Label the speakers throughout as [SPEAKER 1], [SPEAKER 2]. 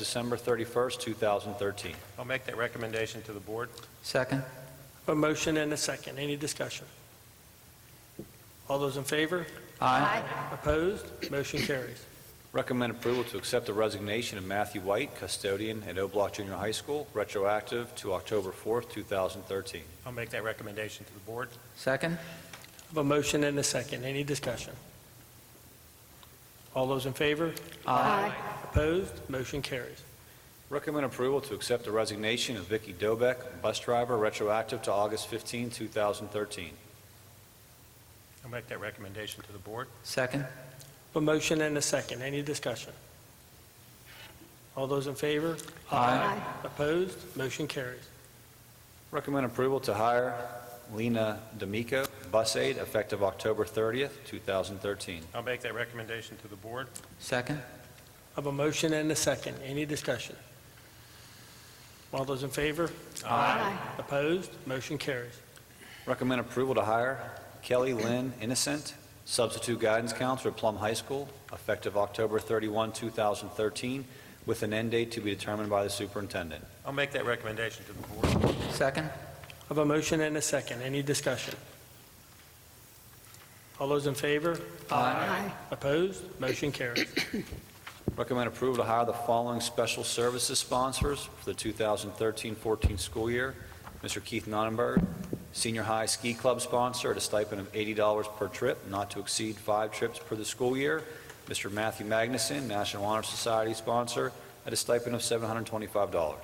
[SPEAKER 1] December 31st, 2013.
[SPEAKER 2] I'll make that recommendation to the board.
[SPEAKER 3] Second?
[SPEAKER 4] A motion and a second. Any discussion? All those in favor? Opposed? Motion carries.
[SPEAKER 1] Recommend approval to accept the resignation of Matthew White, custodian at O'Block Junior High School, retroactive to October 4th, 2013.
[SPEAKER 2] I'll make that recommendation to the board.
[SPEAKER 3] Second?
[SPEAKER 4] A motion and a second. Any discussion? All those in favor? Opposed? Motion carries.
[SPEAKER 1] Recommend approval to accept the resignation of Vicky Dobek, bus driver, retroactive to August 15, 2013.
[SPEAKER 2] I'll make that recommendation to the board.
[SPEAKER 3] Second?
[SPEAKER 4] A motion and a second. Any discussion? All those in favor? Opposed? Motion carries.
[SPEAKER 1] Recommend approval to hire Lena D'Amico, bus aide, effective October 30th, 2013.
[SPEAKER 2] I'll make that recommendation to the board.
[SPEAKER 3] Second?
[SPEAKER 4] Of a motion and a second. Any discussion? All those in favor? Opposed? Motion carries.
[SPEAKER 1] Recommend approval to hire Kelly Lynn Innocent, substitute guidance counselor at Plum High School, effective October 31, 2013, with an end date to be determined by the superintendent.
[SPEAKER 2] I'll make that recommendation to the board.
[SPEAKER 3] Second?
[SPEAKER 4] Of a motion and a second. Any discussion? All those in favor? Opposed? Motion carries.
[SPEAKER 1] Recommend approval to hire the following special services sponsors for the 2013-14 school year. Mr. Keith Nonnenberg, senior high ski club sponsor at a stipend of $80 per trip, not to exceed five trips per the school year. Mr. Matthew Magnuson, National Honor Society sponsor, at a stipend of $725.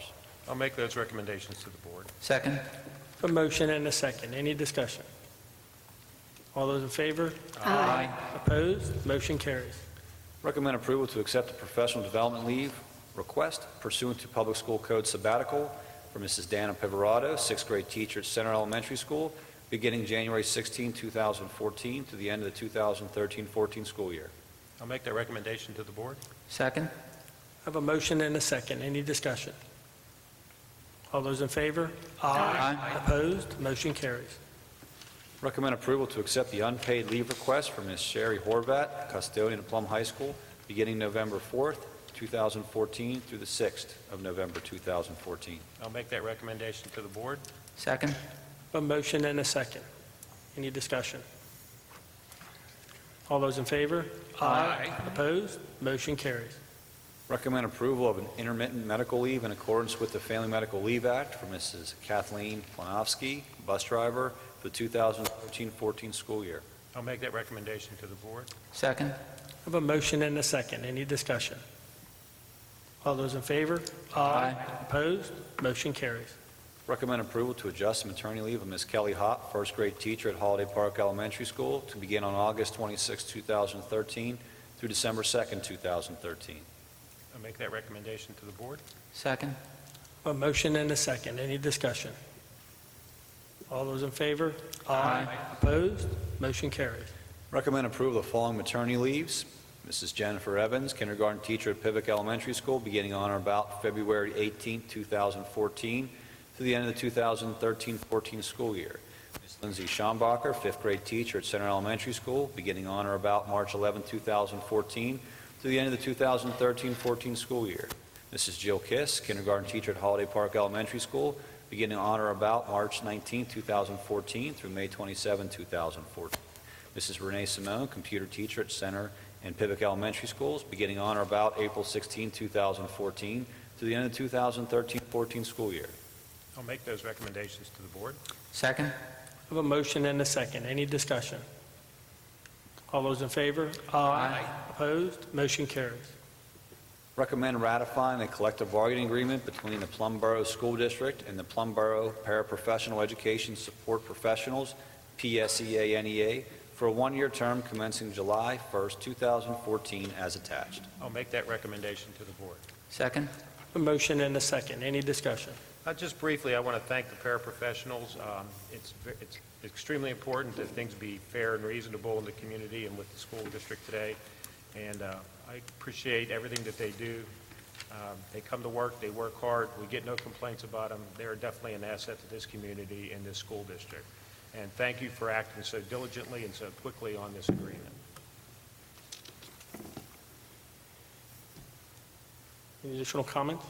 [SPEAKER 2] I'll make those recommendations to the board.
[SPEAKER 3] Second?
[SPEAKER 4] A motion and a second. Any discussion? All those in favor? Opposed? Motion carries.
[SPEAKER 1] Recommend approval to accept the professional development leave request pursuant to Public School Code sabbatical for Mrs. Dana Pivorato, sixth grade teacher at Center Elementary School, beginning January 16, 2014, to the end of the 2013-14 school year.
[SPEAKER 2] I'll make that recommendation to the board.
[SPEAKER 3] Second?
[SPEAKER 4] I have a motion and a second. Any discussion? All those in favor?
[SPEAKER 3] Aye.
[SPEAKER 4] Opposed? Motion carries.
[SPEAKER 1] Recommend approval to accept the unpaid leave request for Ms. Sherry Horvat, custodian at Plum High School, beginning November 4, 2014, through the 6th of November 2014.
[SPEAKER 2] I'll make that recommendation to the board.
[SPEAKER 3] Second?
[SPEAKER 4] A motion and a second. Any discussion? All those in favor? Opposed? Motion carries.
[SPEAKER 1] Recommend approval of an intermittent medical leave in accordance with the Family Medical Leave Act for Mrs. Kathleen Planofsky, bus driver, for the 2013-14 school year.
[SPEAKER 2] I'll make that recommendation to the board.
[SPEAKER 3] Second?
[SPEAKER 4] I have a motion and a second. Any discussion? All those in favor? Opposed? Motion carries.
[SPEAKER 1] Recommend approval to adjust the maternity leave of Ms. Kelly Hop, first grade teacher at Holiday Park Elementary School, to begin on August 26, 2013, through December 2, 2013.
[SPEAKER 2] I'll make that recommendation to the board.
[SPEAKER 3] Second?
[SPEAKER 4] A motion and a second. Any discussion? All those in favor? Opposed? Motion carries.
[SPEAKER 1] Recommend approval of the following maternity leaves. Mrs. Jennifer Evans, kindergarten teacher at Pivot Elementary School, beginning on or about February 18, 2014, through the end of the 2013-14 school year. Ms. Lindsay Schombacher, fifth grade teacher at Center Elementary School, beginning on or about March 11, 2014, through the end of the 2013-14 school year. Mrs. Jill Kiss, kindergarten teacher at Holiday Park Elementary School, beginning on or about March 19, 2014, through May 27, 2014. Mrs. Renee Simone, computer teacher at Center and Pivot Elementary Schools, beginning on or about April 16, 2014, through the end of 2013-14 school year.
[SPEAKER 2] I'll make those recommendations to the board.
[SPEAKER 3] Second?
[SPEAKER 4] I have a motion and a second. Any discussion? All those in favor? Opposed? Motion carries.
[SPEAKER 1] Recommend ratifying the collective bargaining agreement between the Plum Borough School District and the Plum Borough Paraprofessional Education Support Professionals, PSEA-NEA, for a one-year term commencing July 1, 2014, as attached.
[SPEAKER 2] I'll make that recommendation to the board.
[SPEAKER 3] Second?
[SPEAKER 4] A motion and a second. Any discussion?
[SPEAKER 2] Uh, Just briefly, I want to thank the paraprofessionals. Um, It's ve- it's extremely important that things be fair and reasonable in the community and with the school district today, and uh, I appreciate everything that they do. Um, They come to work, they work hard, we get no complaints about them. They're definitely an asset to this community and this school district. And thank you for acting so diligently and so quickly on this agreement.
[SPEAKER 4] Any additional comments?